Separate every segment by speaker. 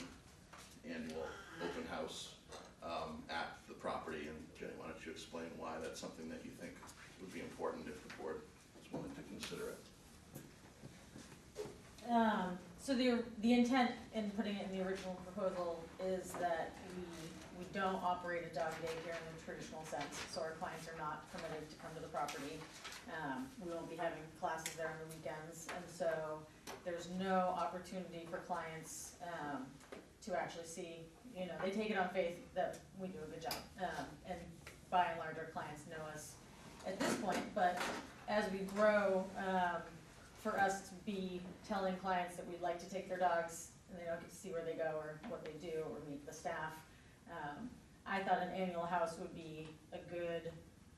Speaker 1: um,
Speaker 2: Um, the, the intent in putting it in the original proposal is that we, we don't operate a dog daycare in the traditional sense, so our clients are not permitted to come to the property. Um, we won't be having classes there on the weekends, and so there's no opportunity for clients, um, to actually see, you know, they take it on faith that we do a good job. Um, and by and large, our clients know us at this point, but as we grow, um, for us to be telling clients that we'd like to take their dogs and they don't get to see where they go or what they do or meet the staff. Um, I thought an annual house would be a good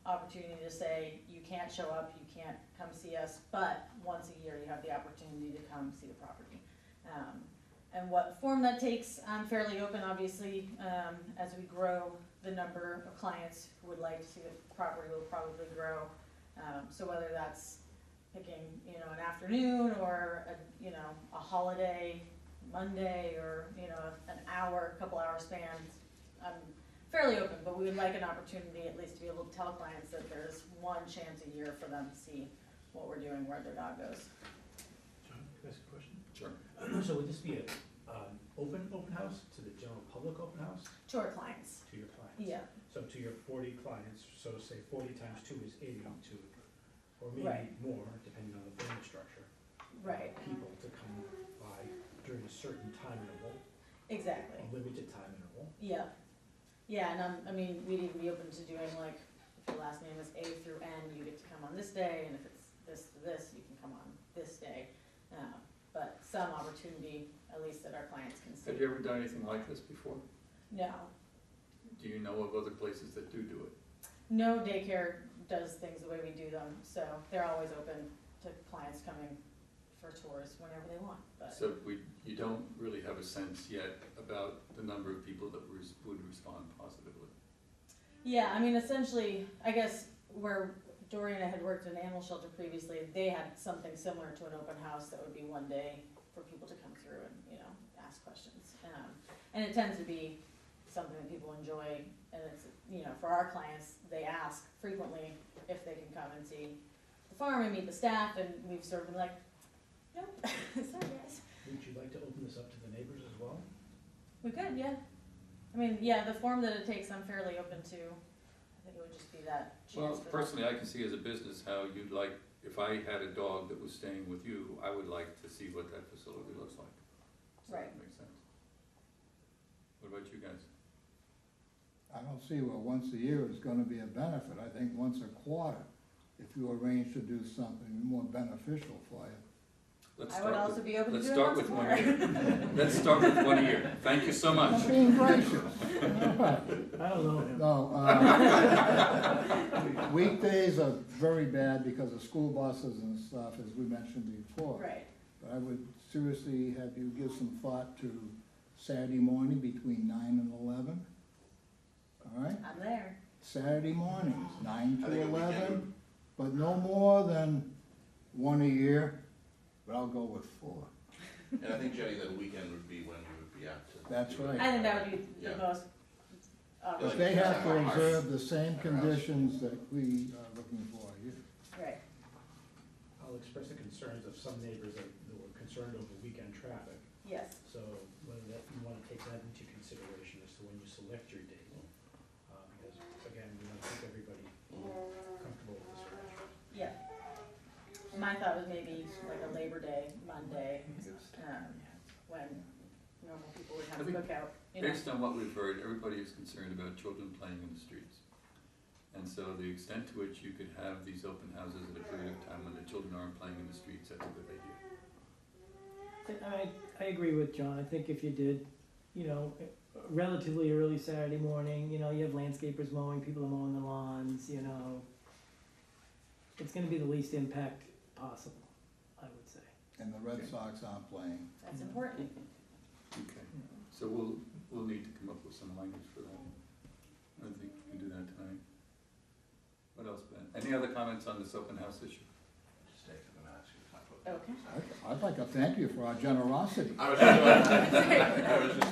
Speaker 2: opportunity to say, you can't show up, you can't come see us, but once a year you have the opportunity to come see the property. Um, and what form that takes, I'm fairly open, obviously, um, as we grow, the number of clients who would like to see the property will probably grow. Um, so whether that's picking, you know, an afternoon or a, you know, a holiday, Monday, or, you know, an hour, couple hour span. I'm fairly open, but we would like an opportunity at least to be able to tell clients that there's one chance a year for them to see what we're doing, where their dog goes.
Speaker 3: John, can I ask a question?
Speaker 4: Sure.
Speaker 3: So would this be a, um, open, open house to the general public open house,
Speaker 2: To our clients,
Speaker 3: to your clients?
Speaker 2: yeah,
Speaker 3: So to your forty clients, so say forty times two is eighty-two, or maybe
Speaker 2: Right.
Speaker 3: more, depending on the building structure.
Speaker 2: right,
Speaker 3: People to come by during a certain time interval,
Speaker 2: exactly.
Speaker 3: a limited time interval.
Speaker 2: Yeah, yeah, and um, I mean, we'd even be open to doing like, if your last name is A through N, you get to come on this day, and if it's this to this, you can come on this day. Uh, But some opportunity, at least that our clients can
Speaker 4: Have
Speaker 2: see.
Speaker 4: you ever done anything like this before?
Speaker 2: No,
Speaker 4: Do you know of other places that do do it?
Speaker 2: no daycare does things the way we do them, so they're always open to clients coming for tours whenever they want, but,
Speaker 4: So we, you don't really have a sense yet about the number of people that res- would respond positively.
Speaker 2: yeah, I mean, essentially, I guess where Dory and I had worked in an animal shelter previously, they had something similar to an open house that would be one day for people to come through and, you know, ask questions. Um, and it tends to be something that people enjoy, and it's, you know, for our clients, they ask frequently if they can come and see the farm and meet the staff, and we've sort of been like, nope, sorry guys.
Speaker 3: Would you like to open this up to the neighbors as well?
Speaker 2: We could, yeah. I mean, yeah, the form that it takes, I'm fairly open to. I think it would just be that
Speaker 4: Well,
Speaker 2: chance for.
Speaker 4: personally, I can see as a business how you'd like, if I had a dog that was staying with you, I would like to see what that facility looks like. Does that
Speaker 2: Right.
Speaker 4: Make sense. What about you guys?
Speaker 5: I don't see where once a year is gonna be a benefit, I think once a quarter, if you arrange to do something more beneficial for you.
Speaker 4: Let's
Speaker 2: I would
Speaker 4: start
Speaker 2: also
Speaker 4: with,
Speaker 2: be open to
Speaker 4: let's
Speaker 2: doing
Speaker 4: start
Speaker 2: lots
Speaker 4: with
Speaker 2: of
Speaker 4: one
Speaker 2: more.
Speaker 4: year. Let's start with one year. Thank you so much.
Speaker 5: I'm being gracious. All right.
Speaker 3: I don't know him.
Speaker 5: No, uh, weekdays are very bad because of school buses and stuff, as we mentioned before.
Speaker 2: Right,
Speaker 5: But I would seriously have you give some thought to Saturday morning between nine and eleven. All right?
Speaker 2: I'm there.
Speaker 5: Saturday mornings, nine
Speaker 1: I
Speaker 5: to
Speaker 1: think a weekend
Speaker 5: eleven, but no more than one a year, but I'll go with four.
Speaker 1: And I think, Jenny, that weekend would be when we would be out to.
Speaker 5: That's right.
Speaker 2: I think that would be the
Speaker 1: Yeah.
Speaker 2: most. uh,
Speaker 1: Yeah,
Speaker 5: But
Speaker 1: like
Speaker 5: they have to
Speaker 1: our house.
Speaker 5: observe the same
Speaker 1: Our house.
Speaker 5: conditions that we are looking for here.
Speaker 2: Right,
Speaker 3: I'll express the concerns of some neighbors that that were concerned over weekend traffic.
Speaker 2: yes,
Speaker 3: So whether that, you wanna take that into consideration as to when you select your date. Uh, because again, we wanna keep everybody comfortable with this arrangement.
Speaker 2: yeah. My thought was maybe like a Labor Day, Monday, um, when normal people would have a
Speaker 4: I think-
Speaker 2: cookout, you know.
Speaker 4: Based on what we've heard, everybody is concerned about children playing in the streets. And so the extent to which you could have these open houses at a period of time when the children aren't playing in the streets, that's a good idea.
Speaker 6: I, I agree with John. I think if you did, you know, relatively early Saturday morning, you know, you have landscapers mowing, people are mowing the lawns, you know. It's gonna be the least impact possible, I would say.
Speaker 5: And the Red Sox aren't playing.
Speaker 2: That's important.
Speaker 4: Okay, so we'll, we'll need to come up with some language for that. I don't think we can do that tonight. What else, Ben? Any other comments on this open house issue?
Speaker 1: Just take them and ask you to talk about that.
Speaker 2: Okay.
Speaker 5: I'd- I'd like to thank you for our generosity.
Speaker 1: I was just, I was just